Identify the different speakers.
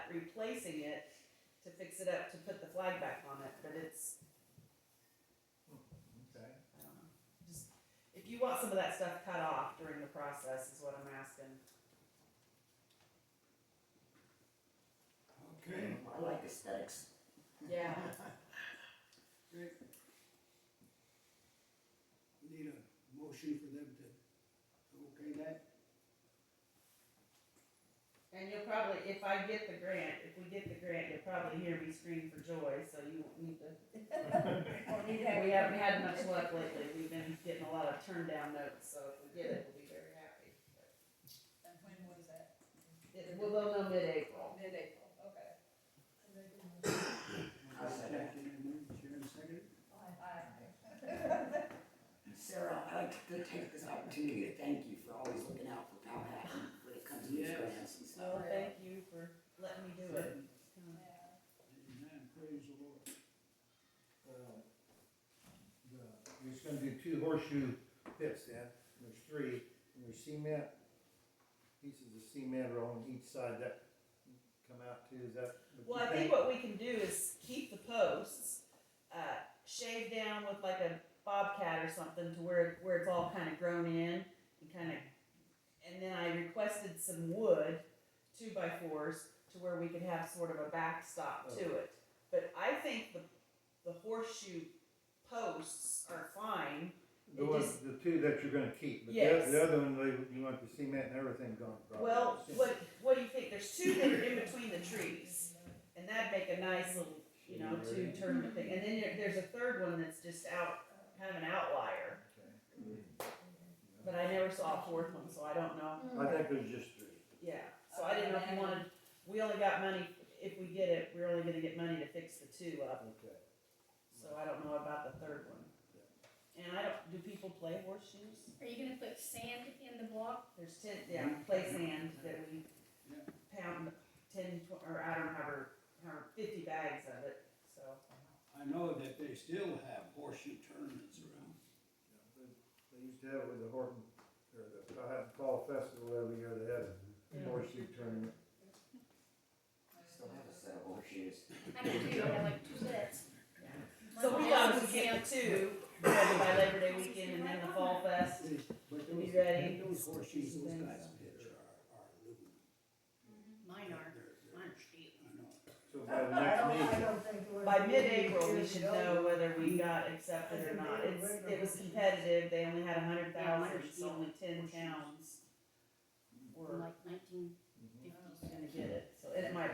Speaker 1: replacing it to fix it up, to put the flag back on it, but it's,
Speaker 2: Okay.
Speaker 1: I don't know. Just, if you want some of that stuff cut off during the process is what I'm asking.
Speaker 2: Okay.
Speaker 3: I like aesthetics.
Speaker 1: Yeah.
Speaker 2: Okay. Need a motion for them to, okay that?
Speaker 1: And you'll probably, if I get the grant, if we get the grant, you'll probably hear me scream for joy, so you won't need to. We haven't had much luck lately, we've been getting a lot of turn down notes, so if we get it, we'll be very happy.
Speaker 4: And when was that?
Speaker 1: It, well, they'll know mid-April.
Speaker 4: Mid-April, okay.
Speaker 3: I second.
Speaker 2: Sharon seconded?
Speaker 4: Aye.
Speaker 3: Sarah, I'd like to take this opportunity to thank you for always looking out for Powhatan when it comes to these
Speaker 2: Yes.
Speaker 3: grants and stuff.
Speaker 1: So Oh, thank you for letting me do it.
Speaker 2: Amen, praise the Lord.
Speaker 5: uh, the- There's gonna be two horseshoe pits, Dan, there's three, and there's cement, pieces of cement are on each side that come out too, is that? what you
Speaker 1: Well, I think what we can do is keep the posts, uh, shave down with like a bobcat or something to where, where it's all kind of grown in and kind of, and then I requested some wood, two by fours, to where we could have sort of a backstop to it. But I think the, the horseshoe posts are fine.
Speaker 5: The
Speaker 1: it
Speaker 5: ones,
Speaker 1: just-
Speaker 5: the two that you're gonna keep, but the
Speaker 1: Yes.
Speaker 5: oth- the other one, they- you want the cement and everything gone. probably.
Speaker 1: Well, what, what do you think? There's two that are in between the trees. And that'd make a nice little, you know, two tournament thing. And then there- there's a third one that's just out, kind of an outlier.
Speaker 5: Okay.
Speaker 1: But I never saw a fourth one, so I don't know.
Speaker 5: I think there's just three.
Speaker 1: Yeah, so I didn't know if you wanted, we only got money, if we get it, we're only gonna get money to fix the two up.
Speaker 5: Okay.
Speaker 1: So I don't know about the third one. And I don't, do people play horseshoes?
Speaker 6: Are you gonna put sand in the block?
Speaker 1: There's ten, yeah, play sand that we pound ten, tw- or I don't know, however, however, fifty bags of it, so.
Speaker 2: I know that they still have horseshoe tournaments around.
Speaker 5: Yeah, They they used to have it with the Horton, or the Powhatan Fall Festival every year, they had a horseshoe tournament.
Speaker 3: Still have a set of horseshoes.
Speaker 6: I do too, I have like two bits.
Speaker 1: So we got to get the two ready by Labor Day weekend and then the Fall Fest.
Speaker 2: But
Speaker 1: Are you
Speaker 2: those,
Speaker 1: ready?
Speaker 2: those horseshoes, those
Speaker 1: Thanks.
Speaker 2: guys pitch are, are aluminum.
Speaker 6: Mm-hmm. Mine are,
Speaker 2: They're- they're-
Speaker 6: mine are steel.
Speaker 2: I know.
Speaker 5: So by the next meeting,
Speaker 1: By mid-April, we should know whether we got accepted or not. It's, it was competitive, they only had a hundred thousand, so only ten towns
Speaker 6: from
Speaker 1: were
Speaker 6: like nineteen
Speaker 1: gonna get it, so it might